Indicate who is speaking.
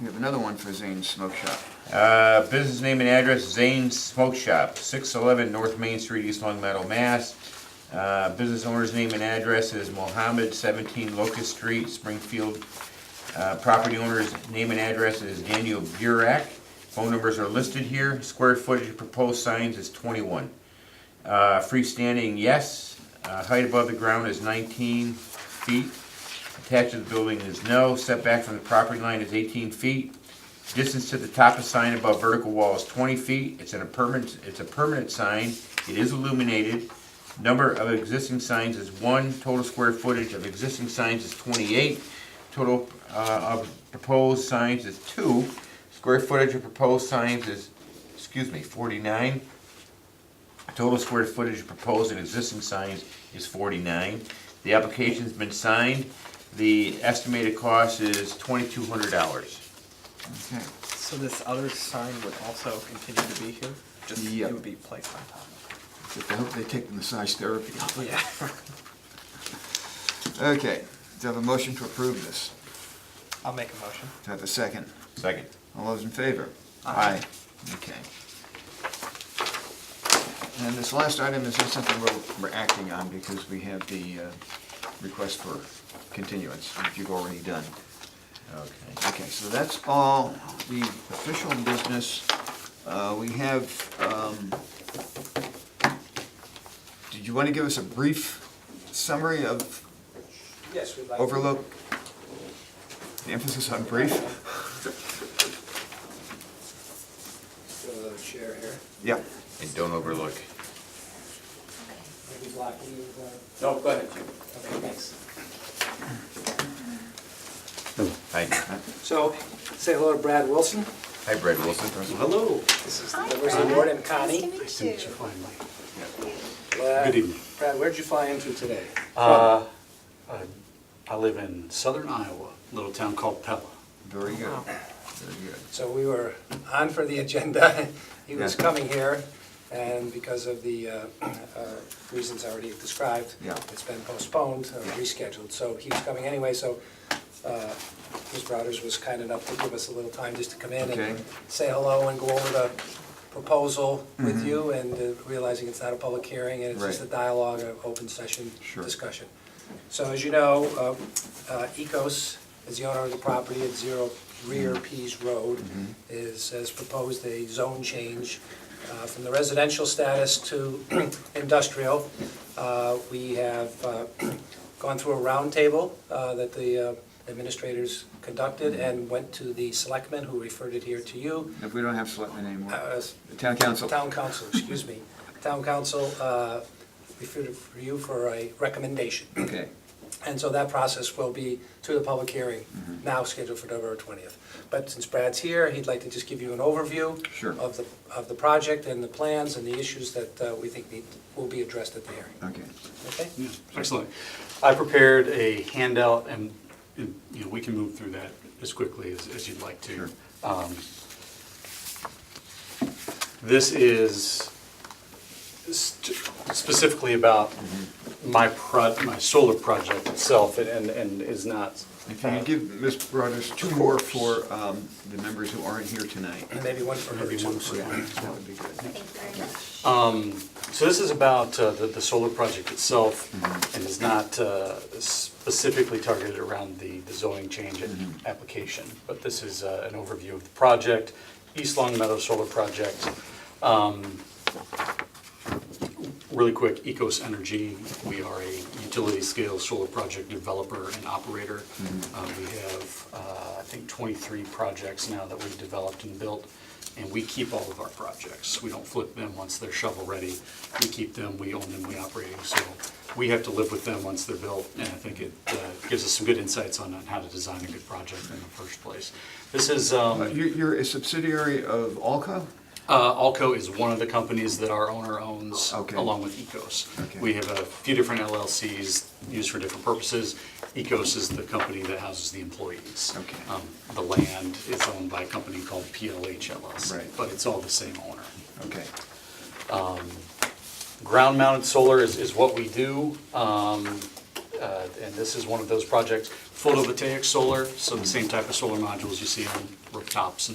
Speaker 1: another one for Zane's Smoke Shop.
Speaker 2: Uh, business name and address, Zane's Smoke Shop, six eleven North Main Street, East Long Meadow, Mass. Uh, business owner's name and address is Mohammed, seventeen Locust Street, Springfield. Uh, property owner's name and address is Daniel Burek. Phone numbers are listed here. Square footage of proposed signs is twenty-one. Uh, freestanding, yes. Uh, height above the ground is nineteen feet. Attached to the building is no. Setback from the property line is eighteen feet. Distance to the top of sign above vertical wall is twenty feet. It's in a permanent, it's a permanent sign. It is illuminated. Number of existing signs is one. Total square footage of existing signs is twenty-eight. Total, uh, of proposed signs is two. Square footage of proposed signs is, excuse me, forty-nine. Total square footage proposed in existing signs is forty-nine. The application's been signed. The estimated cost is twenty-two hundred dollars.
Speaker 1: Okay.
Speaker 3: So this other sign would also continue to be here? Just,
Speaker 1: Yep.
Speaker 3: it would be placed on top of
Speaker 1: I hope they take the massage therapy off.
Speaker 3: it? Oh, Yeah.
Speaker 1: Okay, do I have a motion to approve this?
Speaker 3: I'll make a motion.
Speaker 1: Do I have a second?
Speaker 2: Second.
Speaker 1: All those in favor?
Speaker 3: Aye.
Speaker 1: Okay. And this last item is just something we're, we're acting on because we have the uh, request for continuance, which you've already done.
Speaker 2: Okay.
Speaker 1: Okay, so that's all the official business. Uh, We have, um, did you want to give us a brief summary of
Speaker 4: Yes, we'd like. to-
Speaker 1: overlook? The emphasis on brief?
Speaker 4: Go to the chair here.
Speaker 1: Yeah.
Speaker 2: And don't overlook.
Speaker 4: Maybe block you, uh,
Speaker 2: No, go ahead.
Speaker 4: okay, thanks.
Speaker 2: Hi,
Speaker 4: So, say hello to Brad Wilson.
Speaker 2: hi Brad Wilson.
Speaker 4: Hello. This is the
Speaker 5: Hi,
Speaker 4: diversity
Speaker 5: Brad.
Speaker 4: board and Connie.
Speaker 5: Nice to meet you.
Speaker 4: Good evening. Brad, where'd you fly into today?
Speaker 6: Uh, I- I live in southern Iowa, a little town called Pella.
Speaker 1: Very good, very good.
Speaker 4: So we were on for the agenda. He was
Speaker 1: Yeah.
Speaker 4: coming here, and because of the uh, uh, reasons already described,
Speaker 1: Yeah.
Speaker 4: it's been postponed, or rescheduled. So he was coming anyway, so uh, Ms. Brothers was kind enough to give us a little time just to come in
Speaker 1: Okay.
Speaker 4: and say hello and go over the proposal with you, and uh, realizing it's not a public hearing, and it's just a
Speaker 1: Mm-hmm. Right.
Speaker 4: dialogue, an open session
Speaker 1: Sure.
Speaker 4: discussion. So as you know, uh, uh, Ecos is the owner of the property at Zero Rear Pease Road, is, has proposed a zone change uh, from the residential status to industrial. Uh, We have uh, gone through a roundtable uh, that the uh, administrators conducted and went to the selectmen who referred it here to you.
Speaker 1: If we don't have selectmen anymore,
Speaker 4: Uh,
Speaker 1: the town council.
Speaker 4: Town council, excuse me. Town council uh, referred it for you for a recommendation.
Speaker 1: Okay,
Speaker 4: And so that process will be to the public hearing, now scheduled for November 20th. But since Brad's here, he'd like to just give you an overview
Speaker 1: Sure.
Speaker 4: of the, of the project and the plans and the issues that uh, we think need, will be addressed at the hearing,
Speaker 1: okay.
Speaker 4: okay?
Speaker 6: Yeah, Excellent. I prepared a handout, and, and, you know, we can move through that as quickly as, as you'd like
Speaker 1: Sure.
Speaker 6: to. Um, This is st- specifically about my pro, my solar project itself, and- and, and is not.
Speaker 1: If you could give Ms. Brothers two more for um, the members who aren't here tonight.
Speaker 4: And maybe one for her,
Speaker 6: Maybe
Speaker 4: too.
Speaker 6: one
Speaker 4: so-
Speaker 6: for-
Speaker 1: That would be good.
Speaker 5: Thank you very much.
Speaker 6: Um, So this is about uh, the, the solar project itself and is not uh, specifically targeted around the the zoning change a- application. But this is uh, an overview of the project, East Long Meadow Solar Project. Um, Really quick, Ecos Energy, we are a utility-scale solar project developer and operator. Uh, We have, uh, I think, 23 projects now that we've developed and built, and we keep all of our projects. We don't flip them once they're shovel-ready. We keep them, we own them, we operate them, so we have to live with them once they're built, and I think it uh, gives us some good insights on on how to design a good project in the first place. This is... um,
Speaker 1: Uh, You're you're a subsidiary of Alco?
Speaker 6: uh, Alco is one of the companies that our owner owns
Speaker 1: Okay.
Speaker 6: along with Ecos.
Speaker 1: Okay.
Speaker 6: We have a few different LLCs used for different purposes. Ecos is the company that houses the employees.
Speaker 1: Okay.
Speaker 6: Um, The land is owned by a company called PLH LLC,
Speaker 1: Right.
Speaker 6: but it's all the same owner.
Speaker 1: Okay.
Speaker 6: Ground mounted solar is, is what we do, um, uh, and this is one of those projects. photovoltaic solar, so the same type of solar modules you see on rooftops and